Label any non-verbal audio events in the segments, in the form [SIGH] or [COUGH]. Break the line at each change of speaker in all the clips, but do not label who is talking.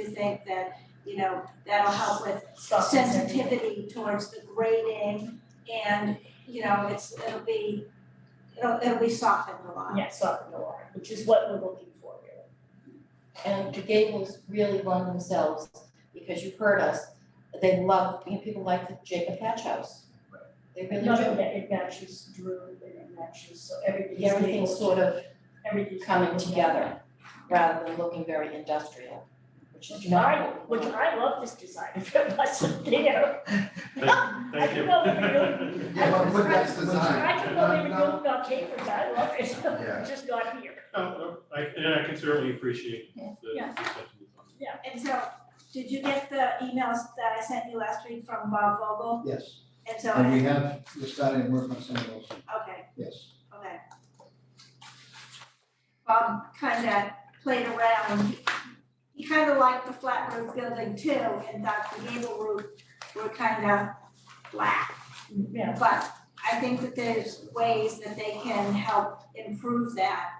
think that, you know, that'll help with sensitivity towards the grading and, you know, it's, it'll be, it'll, it'll be softened a lot.
Yeah, soften the line, which is what we're looking for really.
And the Gables really won themselves, because you heard us, they love, you know, people like the Jacob Hatch House. They really
None of
do,
that, it matches Drew and it matches, so everything's able to.
everything's sort of
everything's
coming
able to-
together, rather than looking very industrial, which is
Which
not.
I, which I love this design, [LAUGHS] if it wasn't there.
Thank
I
thank
could
you.
go with
[LAUGHS]
the new.
Yeah, but that's design.
I could go with the new bell capers, I love
Yeah.
it, [LAUGHS] just not here.
Oh, oh, I, and I can certainly appreciate the.
Yeah.
the sentiment on it.
And so, did you get the emails that I sent you last week from Bob Vogel?
Yes,
And so,
and we have, we're starting work on some of those,
okay,
yes.
Okay. Bob kinda played around, he kinda liked the flat roof building too, and thought the gable roof were kinda flat.
Yeah,
But I think that there's ways that they can help improve that.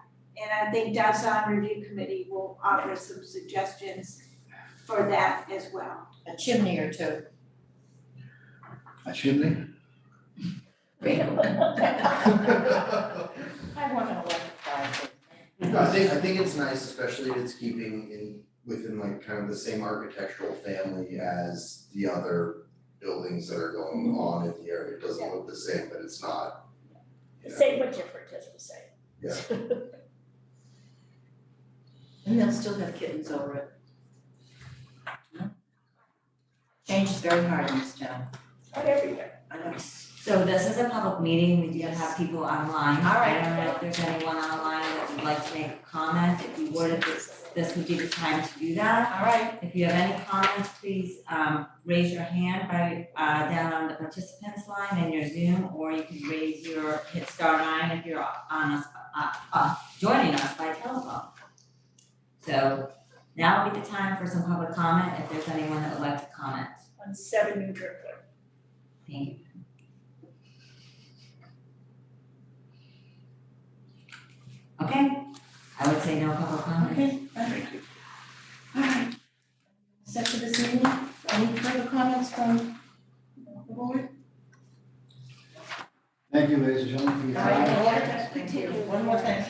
And I think Dasan Review Committee will offer some suggestions for that as well.
A chimney or two. [LAUGHS]
A chimney?
I
I want an electrified.
think, I think it's nice, especially if it's keeping in, within like kind of the same architectural family as the other buildings that are going
Mm-hmm.
on in the area, it doesn't look the same, but it's not. you know.
same but different, as we say.
And they'll still have kittens over it. Hmm? Change is very hard in this town.
Not everywhere.
I know.
So this is a public meeting, we do have people online.
All right.
I don't know if there's anyone online that would like to make a comment, if you would, this, this would be the time to do that.
All right,
If you have any comments, please, um, raise your hand by, uh, down on the participants line in your Zoom, or you can raise your, hit star nine if you're on us, uh, uh, joining us by telephone. So now would be the time for some public comment, if there's anyone that would like to comment,
on seven New Driftway.
thank you. Okay, I would say no public comment.
okay. Thank you. All right. Set for this meeting, any further comments from the board?
Thank you, ladies and gentlemen, for your
All right,
time.
no more, thank you, one more thing.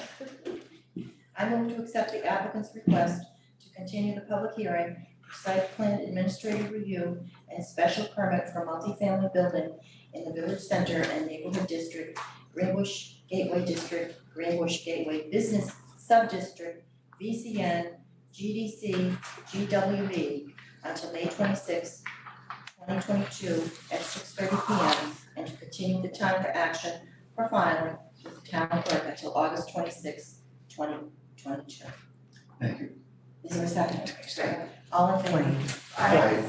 I move to accept the applicant's request to continue the public hearing, for site plan administrative review, and special permit for multifamily building in the village center and neighborhood district, Greenbush Gateway District, Greenbush Gateway Business Subdistrict, VCN, GDC, GWB, until May twenty-sixth, twenty twenty-two, at six thirty P M, and to continue the time for action for filing with the town clerk until August twenty sixth, twenty twenty two.
Thank you.
Is there a second? All in favor?
I-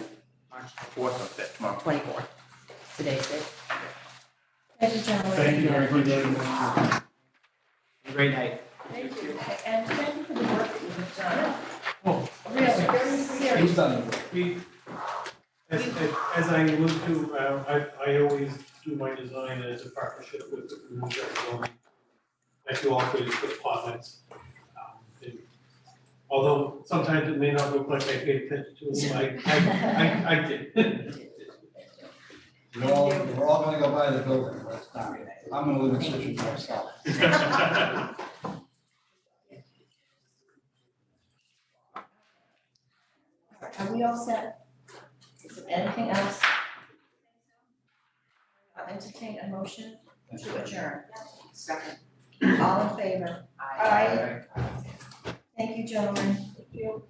March fourth of that month.
Twenty four. Today's date. Thank you, gentlemen.
Thank you very much.
Great night.
Thank you.
And thank you for the work that you've done.
Oh.
Really, very serious.
He's done it.
We, as, as I alluded to, uh, I, I always do my design as a partnership with the community. um, Thank you all for your good comments. Um, and Although sometimes it may not look like I paid attention to them, I, I, I, I did.
We're all, we're all gonna go by the building, but it's not, I'm gonna live in Situate myself.
[LAUGHS]
[LAUGHS]
Are we all set? Is there anything else? I'll entertain a motion to adjourn. Second. All in favor? Aye. Thank you, gentlemen. Thank you.